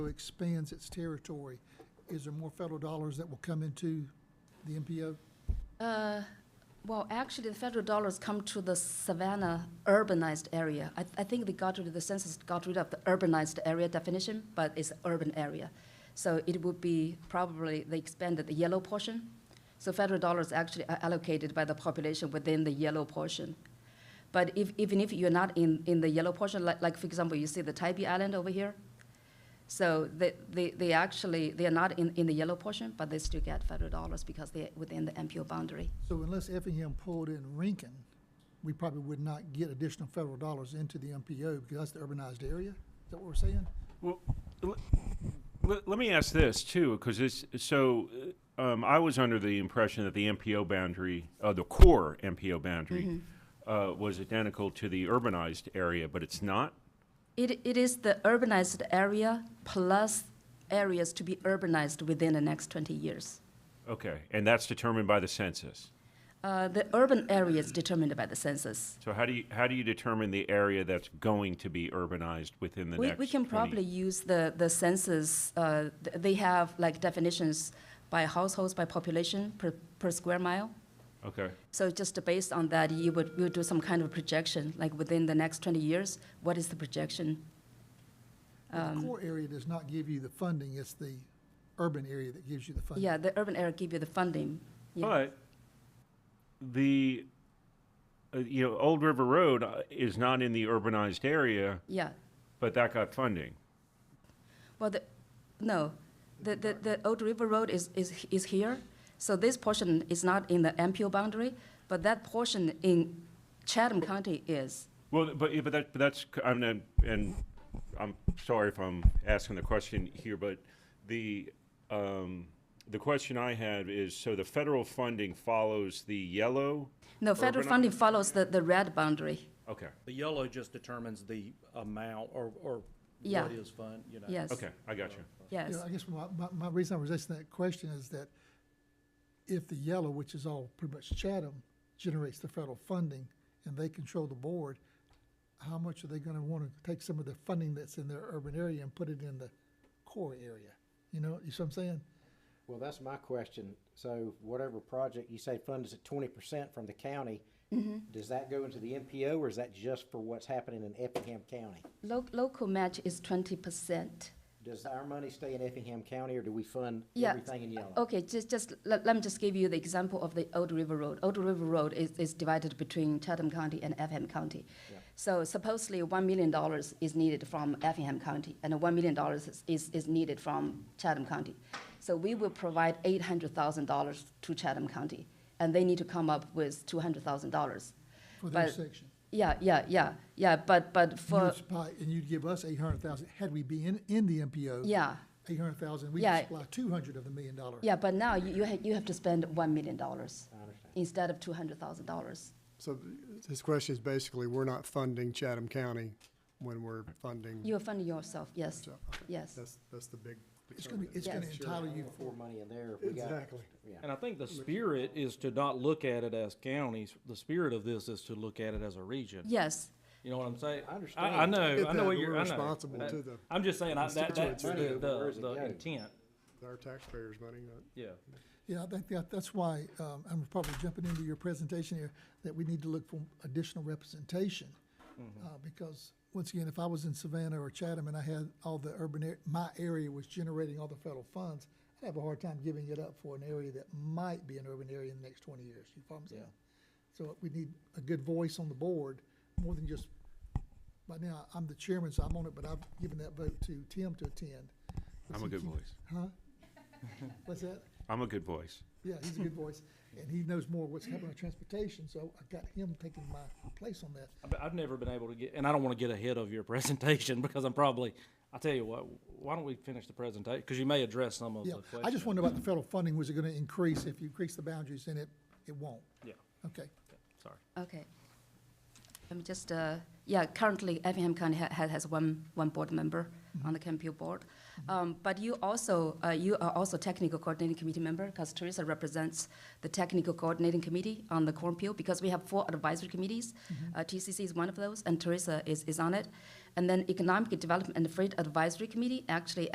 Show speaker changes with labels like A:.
A: expands its territory, is there more federal dollars that will come into the MPO?
B: Uh, Well, actually, the federal dollars come to the Savannah urbanized area. I, I think they got rid of, the census got rid of the urbanized area definition, but it's urban area. So it would be probably, they expanded the yellow portion. So federal dollars actually are allocated by the population within the yellow portion. But if, even if you're not in, in the yellow portion, like, like for example, you see the Tybee Island over here. So they, they, they actually, they are not in, in the yellow portion, but they still get federal dollars because they're within the MPO boundary.
A: So unless Effingham pulled in Rinkin, we probably would not get additional federal dollars into the MPO because that's the urbanized area? Is that what we're saying?
C: Well, le- le- let me ask this too, because it's so. uh, Um, I was under the impression that the MPO boundary, uh, the core MPO boundary,
B: Mm-hmm.
C: uh, was identical to the urbanized area, but it's not.
B: It, it is the urbanized area plus areas to be urbanized within the next 20 years.
C: Okay, and that's determined by the census.
B: Uh, the urban area is determined by the census.
C: So how do you how do you determine the area that's going to be urbanized within the
B: We,
C: next?
B: we can
C: 20
B: probably use the, the census, uh, th- they have like definitions by households, by population, per, per square mile.
C: Okay.
B: So just based on that, you would, you would do some kind of projection, like within the next 20 years, what is the projection?
A: The core area does not give you the funding, it's the urban area that gives you the funding.
B: Yeah, the urban area give you the funding. Yeah.
C: But the uh, you know Old River Road uh, is not in the urbanized area,
B: Yeah,
C: but that got funding.
B: well, the, no, the, the, the Old River Road is, is, is here. So this portion is not in the MPO boundary, but that portion in Chatham County is.
C: Well, th- but, yeah, but that, but that's, c- I'm, not- and I'm sorry if I'm asking the question here, but the, um, the question I have is, so the federal funding follows the yellow?
B: No, federal
C: Urbanized?
B: funding follows the, the red boundary,
C: Okay,
D: The yellow just determines the amount or, or
B: Yeah.
D: what is fund, you know?
B: yes.
C: okay, I got you.
B: Yes.
A: You know, I guess my, my, my reason I was asking that question is that if the yellow, which is all pretty much Chatham, generates the federal funding and they control the board, how much are they gonna wanna take some of the funding that's in their urban area and put it in the core area? You know, you see what I'm saying?
E: Well, that's my question. So whatever project you say funds at twenty percent from the county,
B: Mm-hmm.
E: does that go into the MPO or is that just for what's happening in Effingham County?
B: Lo- local match is 20%.
E: Does our money stay in Effingham County or do we fund
B: Yeah.
E: everything in yellow?
B: Okay, just, just, let, let me just give you the example of the Old River Road. Old River Road is, is divided between Chatham County and Effingham County. So supposedly one million dollars is needed from Effingham County, and one million dollars is- is, is needed from Chatham County. So we will provide eight hundred thousand dollars to Chatham County, and they need to come up with two hundred thousand dollars.
A: For their
B: But-
A: section.
B: Yeah, yeah, yeah, yeah, but,
A: You
B: but
A: would
B: for,
A: supply- And you'd give us eight hundred thousand, had we been in, in the MPO.
B: yeah,
A: Eight hundred thousand, we
B: Yeah.
A: could supply two hundred of the million dollar.
B: yeah, but now you, you have, you have to spend one million dollars
E: I understand.
B: instead of two hundred thousand dollars.
F: So th- his question is basically, we're not funding Chatham County when we're funding,
B: You're funding yourself, yes,
F: So,
B: yes.
F: that's, that's the big.
A: It's gonna, it's
B: Yeah.
A: gonna entitle you for
E: Pour money in there. if we got-
F: Exactly.
E: Yeah.
G: And I think the spirit is to not look at it as counties. The spirit of this is to look at it as a region.
B: Yes,
G: You know what I'm saying?
E: I understand.
G: I know,
F: Get
G: I know what
F: that,
G: you're,
F: we're
G: I know.
F: responsible
G: Uh,
F: to the
G: I'm just saying, I- that, that's
F: constituents.
G: the,
E: Money, but where
G: the,
E: does it
G: the
E: go?
G: intent,
F: Our taxpayers' money, not
G: yeah.
A: Yeah, I think that, that's why, um, I'm probably jumping into your presentation here, that we need to look for additional representation.
C: Mm-hmm.
A: Uh, because, once again, if I was in Savannah or Chatham and I had all the urban, ar- my area was generating all the federal funds, I'd have a hard time giving it up for an area that might be an urban area in the next twenty years, you follow what I'm saying? So we need a good voice on the board, more than just, by now, I'm the chairman, so I'm on it, but I've given that vote to Tim to attend.
C: I'm a good voice.
A: Huh? What's that?
C: I'm a good voice.
A: Yeah, he's a good voice, and he knows more what's happening on transportation, so I got him taking my place on that.
G: I've, I've never been able to get, and I don't want to get ahead of your presentation because I'm probably, I tell you what, why don't we finish the presentation? Because you may address some of the
A: Yeah,
G: questions.
A: I just wonder about the federal funding, was it gonna increase, if you increase the boundaries, then it, it won't,
G: Yeah,
A: okay.
G: sorry.
B: okay. I'm just, uh, yeah, currently Effingham County ha- ha- has one, one board member on the CAMPU board. Um, But you also, uh, you are also technical coordinating committee member, because Teresa represents the technical coordinating committee on the COMPU, because we have four advisory committees. Uh, TCC is one of those, and Teresa is, is on it. And then Economic Development and Freight Advisory Committee, actually